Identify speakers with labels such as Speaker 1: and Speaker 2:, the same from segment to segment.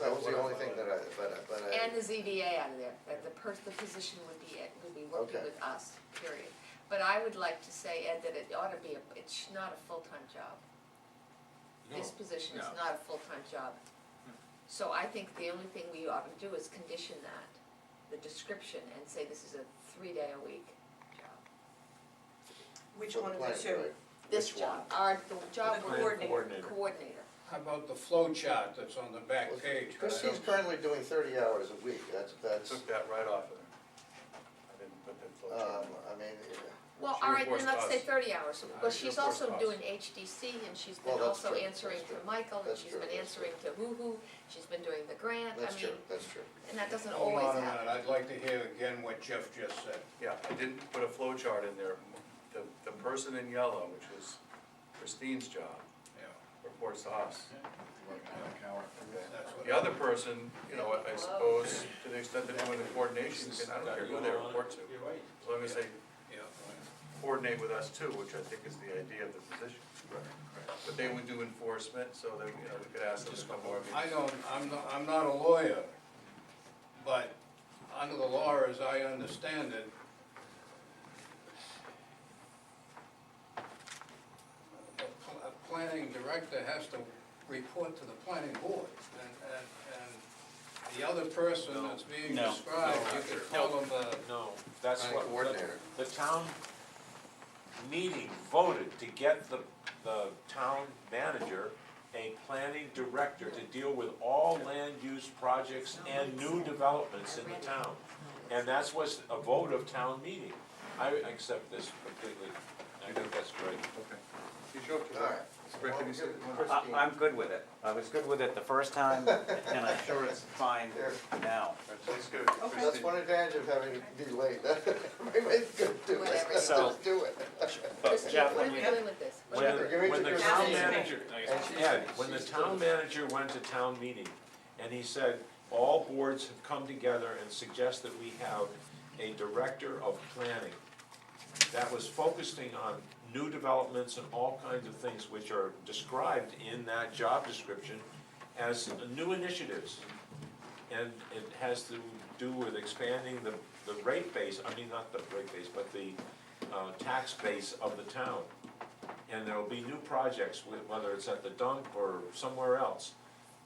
Speaker 1: was the only thing that I, but, I- but I.
Speaker 2: And the ZBA out of there, that the per, the position would be, it would be working
Speaker 1: Okay.
Speaker 2: with us, period. But I would like to say, Ed, that it ought to be, a it's not a full-time job. This position is
Speaker 3: No. Hmm.
Speaker 2: not a full-time job. So I think the only thing we ought to do is condition that, the description, and say this is a three-day-a-week job.
Speaker 4: Which
Speaker 1: for the
Speaker 4: one of the
Speaker 1: planning,
Speaker 4: two?
Speaker 1: right?
Speaker 2: This
Speaker 1: Which one?
Speaker 2: job, our, the job
Speaker 4: The
Speaker 2: we're-
Speaker 4: coordinator.
Speaker 2: coordinator.
Speaker 5: How about the flow chart that's on the back
Speaker 1: Well,
Speaker 5: page?
Speaker 1: Christie's currently doing thirty hours a week, that's, that's,
Speaker 3: Took that right off of there. I didn't put that flow chart
Speaker 1: um,
Speaker 3: on.
Speaker 1: I mean, yeah.
Speaker 2: Well,
Speaker 3: She
Speaker 2: all right, then
Speaker 3: reports
Speaker 2: let's
Speaker 3: to
Speaker 2: say
Speaker 3: us.
Speaker 2: thirty hours,
Speaker 3: Uh,
Speaker 2: well,
Speaker 3: she
Speaker 2: she's
Speaker 3: reports to
Speaker 2: also
Speaker 3: us.
Speaker 2: doing HDC and she's
Speaker 1: Well,
Speaker 2: been
Speaker 1: that's
Speaker 2: also
Speaker 1: true,
Speaker 2: answering
Speaker 1: that's true.
Speaker 2: to Michael, and
Speaker 1: That's
Speaker 2: she's
Speaker 1: true,
Speaker 2: been
Speaker 1: that's true.
Speaker 2: answering to Woo-Hoo, she's been doing the grant, I
Speaker 1: that's true,
Speaker 2: mean,
Speaker 1: that's true.
Speaker 2: and that doesn't
Speaker 5: Hold
Speaker 2: always
Speaker 5: on a
Speaker 2: happen.
Speaker 5: minute, I'd like to hear again what Jeff just said.
Speaker 3: Yeah, I didn't put a flow chart in there. The, the person in yellow, which was Christine's job,
Speaker 5: Yeah,
Speaker 3: reports to us. Okay.
Speaker 5: that's what-
Speaker 3: The other person, you know, I suppose, to the extent that anyone in coordination, can- I don't care who they report to.
Speaker 6: You're right.
Speaker 3: As long as they
Speaker 5: Yeah,
Speaker 3: coordinate with us too, which I think is the idea of the position. But they would do enforcement, so they, you know, we could ask them to come more.
Speaker 5: I don't, I'm not, I'm not a lawyer, but under the law, as I understand it, the pl- a planning director has to report to the planning board, and, and, and the other person that's being
Speaker 6: No.
Speaker 5: described, you could call them a.
Speaker 6: Uh, No, that's
Speaker 1: Planning
Speaker 6: what,
Speaker 1: coordinator.
Speaker 6: the, the town meeting voted to get the, the town manager a planning director to deal with all land use projects and new developments in the town. And that's what's a vote of town meeting. I accept this completely, I think that's great.
Speaker 3: Okay. You sure?
Speaker 1: All right.
Speaker 3: Rick, can you say?
Speaker 7: I, I'm good with it. I was good with it the first time, and I'm sure it's fine
Speaker 1: Here.
Speaker 7: now.
Speaker 3: That's good.
Speaker 4: Okay.
Speaker 1: That's one advantage of having to be late, that, everybody's gonna do it,
Speaker 2: Whatever.
Speaker 1: just do it.
Speaker 2: Christine,
Speaker 7: Jeff,
Speaker 2: what are
Speaker 7: when
Speaker 2: we
Speaker 7: you-
Speaker 2: doing with this? What
Speaker 6: When,
Speaker 2: are
Speaker 1: Whatever,
Speaker 2: we-
Speaker 1: give it
Speaker 6: the-
Speaker 1: to
Speaker 6: when the
Speaker 1: Christine.
Speaker 6: town manager,
Speaker 1: And she's-
Speaker 6: Ed, when the
Speaker 1: she's
Speaker 6: town
Speaker 1: doing it.
Speaker 6: manager went to town meeting, and he said, all boards have come together and suggest that we have a director of planning that was focusing on new developments and all kinds of things which are described in that job description as new initiatives. And it has to do with expanding the, the rate base, I mean, not the rate base, but the, uh, tax base of the town. And there'll be new projects, wh- whether it's at the dump or somewhere else.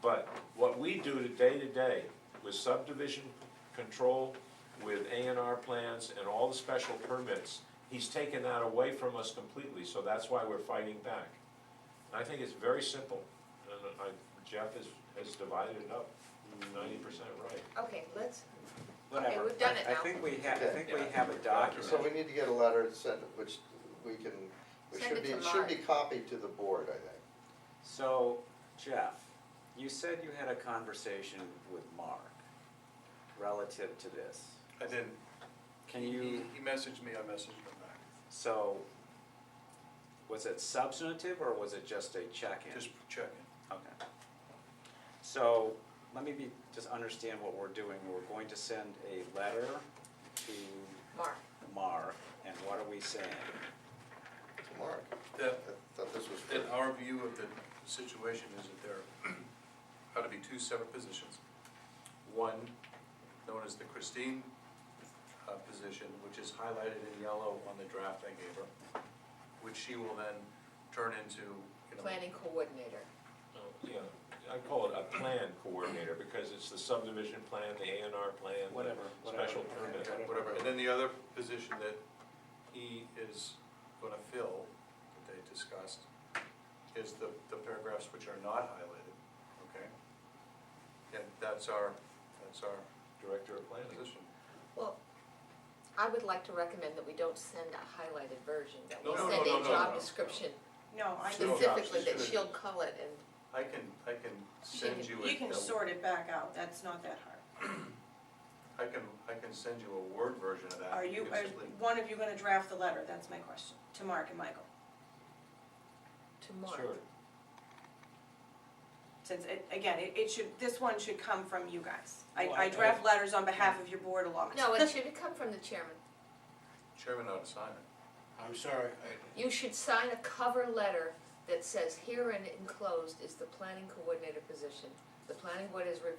Speaker 6: But what we do to day to day with subdivision control, with A and R plans and all the special permits, he's taken that away from us completely, so that's why we're fighting back. I think it's very simple, and I, Jeff has, has divided it up ninety percent right.
Speaker 2: Okay, let's,
Speaker 7: Whatever.
Speaker 2: we've done it
Speaker 7: I-
Speaker 2: now.
Speaker 7: I think we have, I think we
Speaker 3: Yeah.
Speaker 7: have a
Speaker 1: So we
Speaker 7: document.
Speaker 1: need to get a letter sent, which we can, which
Speaker 2: Send
Speaker 1: should be,
Speaker 2: it to
Speaker 1: should be
Speaker 2: Mark.
Speaker 1: copied to the board, I think.
Speaker 7: So, Jeff, you said you had a conversation with Mark relative to this.
Speaker 3: I didn't.
Speaker 7: Can
Speaker 3: He-
Speaker 7: you,
Speaker 3: He messaged me, I messaged him back.
Speaker 7: so, was it substantive or was it just a check-in?
Speaker 3: Just checking.
Speaker 7: Okay. So, let me be, just understand what we're doing. We're going to send a letter to
Speaker 2: Mark,
Speaker 7: Mark, and what are we saying?
Speaker 1: To Mark,
Speaker 3: That,
Speaker 1: I thought this was.
Speaker 3: that our view of the situation is that there ought to be two separate positions. One known as the Christine uh, position, which is highlighted in yellow on the draft I gave her, which she will then turn into, you know.
Speaker 2: planning coordinator.
Speaker 6: Oh, Yeah, I call it a plan coordinator, because it's the subdivision plan, the A and R plan,
Speaker 7: Whatever,
Speaker 6: the
Speaker 7: whatever.
Speaker 6: special permit.
Speaker 3: Yeah, Whatever, and then the other position that he is gonna fill, that they discussed, is the, the paragraphs which are not highlighted, okay? And that's our, that's our
Speaker 6: Director of planning.
Speaker 3: position.
Speaker 2: Well, I would like to recommend that we don't send a highlighted version, that we
Speaker 3: No,
Speaker 4: no,
Speaker 2: send
Speaker 3: no,
Speaker 2: a
Speaker 3: no,
Speaker 2: job
Speaker 3: no.
Speaker 2: description
Speaker 4: No, I
Speaker 3: Still
Speaker 4: can,
Speaker 3: job
Speaker 2: specifically, that
Speaker 3: description.
Speaker 2: she'll call it and
Speaker 3: I can, I can
Speaker 2: She
Speaker 3: send
Speaker 2: can-
Speaker 3: you a.
Speaker 4: you can sort it back out, that's not that hard.
Speaker 3: I can, I can send you a Word version of that.
Speaker 4: Are you,
Speaker 3: can
Speaker 4: are
Speaker 3: simply-
Speaker 4: one of you gonna draft the letter, that's my question, to Mark and Michael?
Speaker 2: to Mark.
Speaker 6: Sure.
Speaker 4: Since, it- again, it, it should, this one should come from you guys. I,
Speaker 7: Well, I-
Speaker 4: I draft letters on behalf of your board a lot.
Speaker 2: No, it should come from the chairman.
Speaker 3: Chairman ought to sign it.
Speaker 5: I'm sorry, I,
Speaker 2: You should sign a cover letter that says herein enclosed is the planning coordinator position. The planning board has reviewed